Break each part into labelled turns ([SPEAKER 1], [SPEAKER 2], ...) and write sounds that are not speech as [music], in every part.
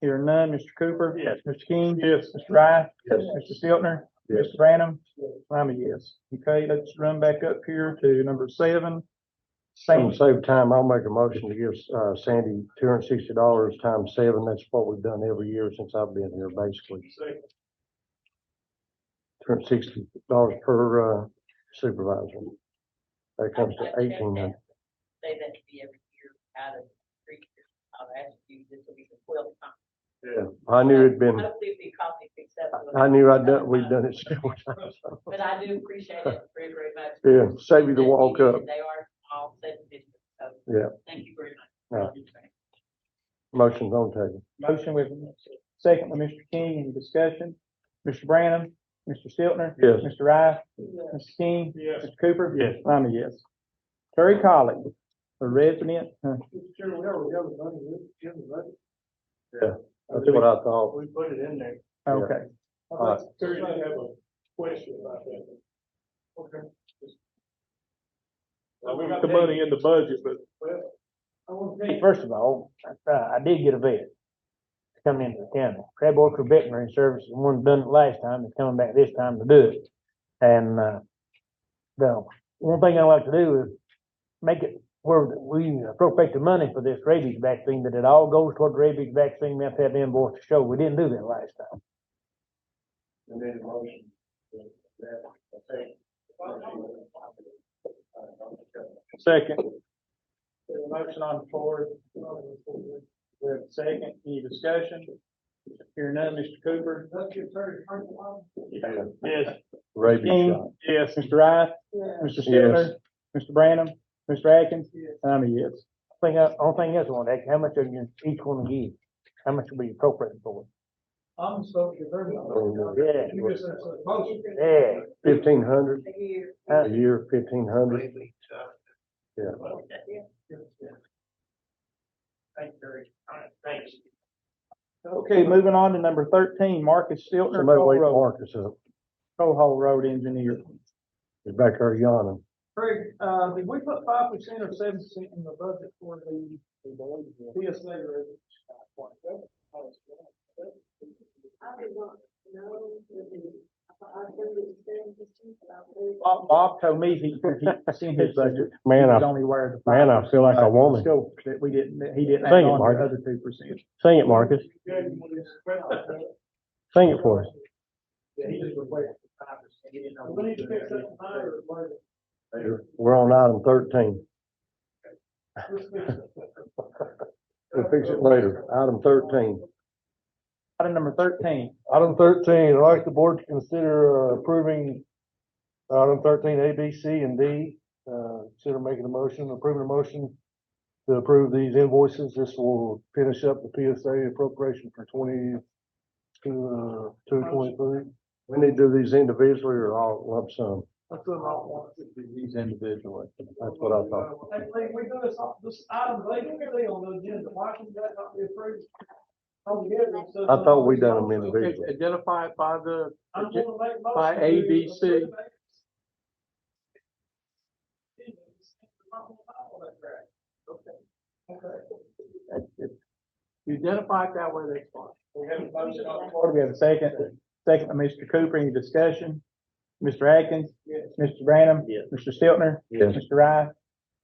[SPEAKER 1] Hearing none, Mr. Cooper?
[SPEAKER 2] Yes.
[SPEAKER 1] Mr. King?
[SPEAKER 2] Yes.
[SPEAKER 1] Mr. Rice?
[SPEAKER 2] Yes.
[SPEAKER 1] Mr. Stiltner?
[SPEAKER 2] Yes.
[SPEAKER 1] Mr. Brannum? I'm a yes. Okay, let's run back up here to number seven.
[SPEAKER 3] Same,
[SPEAKER 1] Same,
[SPEAKER 2] Oh.
[SPEAKER 3] save time, I'll make a motion to give, uh, Sandy two hundred and sixty dollars times seven, that's what we've done every year since I've been here, basically. Two hundred and sixty dollars per, uh, supervisor. That comes to eighteen hundred.
[SPEAKER 4] Say that to be every year out of three years. I'll ask you, this will be the twelfth time.
[SPEAKER 3] I knew it'd been,
[SPEAKER 4] Hopefully it'll be cost acceptable.
[SPEAKER 3] I knew I'd done, we've done it several [laughs] times.
[SPEAKER 4] But I do appreciate it very, very much.
[SPEAKER 3] Yeah, save you the walk up.
[SPEAKER 4] They are all said and done, so.
[SPEAKER 3] Yeah.
[SPEAKER 4] Thank you very much.
[SPEAKER 3] Yeah. Motion's on table.
[SPEAKER 1] motion with, second with Mr. King, any discussion? Mr. Brannum? Mr. Stiltner?
[SPEAKER 3] Yes.
[SPEAKER 1] Mr. Rice?
[SPEAKER 4] Yeah.
[SPEAKER 1] Mr. King?
[SPEAKER 2] Yes.
[SPEAKER 1] Mr. Cooper?
[SPEAKER 2] Yes.
[SPEAKER 1] I'm a yes. Terry Colley, a resident, uh,
[SPEAKER 2] Chairman, we already have the money, we have the budget.
[SPEAKER 3] Yeah, That's what I thought.
[SPEAKER 2] We put it in there.
[SPEAKER 3] Yeah.
[SPEAKER 1] okay.
[SPEAKER 3] Alright.
[SPEAKER 2] Terry, I have a question about that. Okay. we got the money in the budget, but. Well, I want to
[SPEAKER 1] Hey, First of all, uh, I did get a vet coming into the county. Crab Orchard Veterinary Services, the one done it last time, is coming back this time to do it. And, uh, the one thing I like to do is make it where we appropriate the money for this rabies vaccine, that it all goes toward the rabies vaccine. We have to have the invoice to show. We didn't do that last time.
[SPEAKER 2] Amended motion. That, I think.
[SPEAKER 1] Second. motion on the floor. We have a second. Any discussion? Hearing none, Mr. Cooper?
[SPEAKER 2] Yes.
[SPEAKER 3] Rabies shot.
[SPEAKER 1] King? Yes. Mr. Rice? Mr. Stiltner? Mr. Brannum? Mr. Atkins? I'm a yes. Thing, I- only thing is, I want to ask, how much are you each one to give? How much will be appropriate for?
[SPEAKER 2] I'm so concerned.
[SPEAKER 3] Oh,
[SPEAKER 1] Yeah.
[SPEAKER 2] You just said so close.
[SPEAKER 1] Yeah.
[SPEAKER 3] Fifteen hundred
[SPEAKER 1] Uh,
[SPEAKER 3] a year, fifteen hundred.
[SPEAKER 2] Thank you, Terry. All right, Thanks.
[SPEAKER 1] Okay, moving on to number thirteen, Marcus Stiltner,
[SPEAKER 3] Somebody
[SPEAKER 1] Coal
[SPEAKER 3] wait
[SPEAKER 1] Road,
[SPEAKER 3] Marcus up.
[SPEAKER 1] Coal Hole Road Engineer.
[SPEAKER 3] He's back there yawning.
[SPEAKER 2] Craig, uh, did we put five percent or seven percent in the budget for the PSA
[SPEAKER 1] Bob, Bob told me he, he seen his
[SPEAKER 3] [laughs]
[SPEAKER 1] budget. He
[SPEAKER 3] Man,
[SPEAKER 1] was
[SPEAKER 3] I,
[SPEAKER 1] only aware of the.
[SPEAKER 3] man, I feel like a woman.
[SPEAKER 1] Scope that we didn't, that he didn't add
[SPEAKER 3] Thank you,
[SPEAKER 1] on to the
[SPEAKER 3] Marcus.
[SPEAKER 1] other two percent.
[SPEAKER 3] Sing it, Marcus. Sing it for us.
[SPEAKER 2] Yeah, he just replaced five percent. He didn't know. We need to fix that higher.
[SPEAKER 3] We're on item thirteen. We'll fix it later. Item thirteen.
[SPEAKER 1] Item number thirteen,
[SPEAKER 3] Item thirteen, I'd like the board to consider uh, approving item thirteen, A, B, C, and D. Uh, consider making a motion, approving a motion to approve these invoices. This will finish up the PSA appropriation for twenty to, uh, two twenty-three. We need to do these individually or all lump sum.
[SPEAKER 2] That's what I want.
[SPEAKER 3] These individually. That's what I thought.
[SPEAKER 2] Hey, Lee, we do this, this item, they don't get on the agenda, why can that not be approved? Altogether, so-
[SPEAKER 3] I thought we done them individually.
[SPEAKER 5] Identify it by the,
[SPEAKER 2] I'm gonna make a motion
[SPEAKER 5] By
[SPEAKER 2] to
[SPEAKER 5] A, B, C.
[SPEAKER 2] approve it. Okay.
[SPEAKER 5] you identify it that way, that's fine.
[SPEAKER 2] We have a motion on the
[SPEAKER 1] Before
[SPEAKER 2] floor.
[SPEAKER 1] we have a second, second by Mr. Cooper, any discussion? Mr. Atkins? Mr. Brannum?
[SPEAKER 2] Yes.
[SPEAKER 1] Mr. Stiltner?
[SPEAKER 3] Yes.
[SPEAKER 1] Mr. Rice?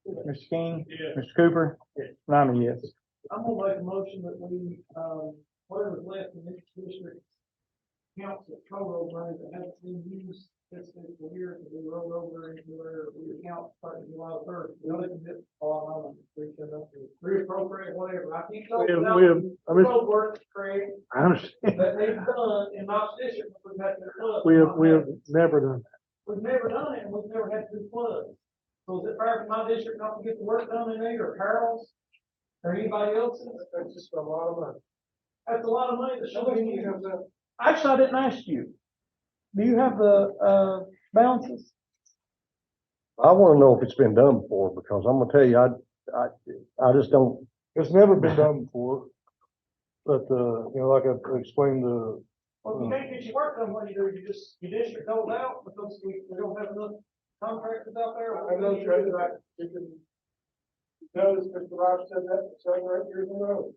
[SPEAKER 1] Mr. King?
[SPEAKER 2] Yeah.
[SPEAKER 1] Mr. Cooper?
[SPEAKER 2] Yes.
[SPEAKER 1] And I'm a yes.
[SPEAKER 2] I'm gonna make a motion that we, um, whatever's left in this district, council co-road money that hasn't been used this fiscal year to be rolled over into our, we account starting July third. We only can get all our money, we can, uh, reappropriate whatever. I can't go without road work, Craig,
[SPEAKER 3] I understand.
[SPEAKER 2] that they've done in my district, we've had to flood.
[SPEAKER 3] never done.
[SPEAKER 2] We've never done it, and we've never had to do floods. So is it fair for my district not to get the work done in there, or Harold's, or anybody else's? That's just a lot of money. That's a lot of money that nobody needs.
[SPEAKER 1] Actually, I didn't ask you. Do you have the, uh, balances?
[SPEAKER 3] I wanna know if it's been done before, because I'm gonna tell you, I, I, I just don't. It's never been done before. But, uh, you know, like I explained, uh, the,
[SPEAKER 2] Well, if you can't get your work done when you do, you just, your district hold out because we, we don't have enough contractors out there. I know, Trey, that you can. Notice Mr. Rob said that for several years in a row.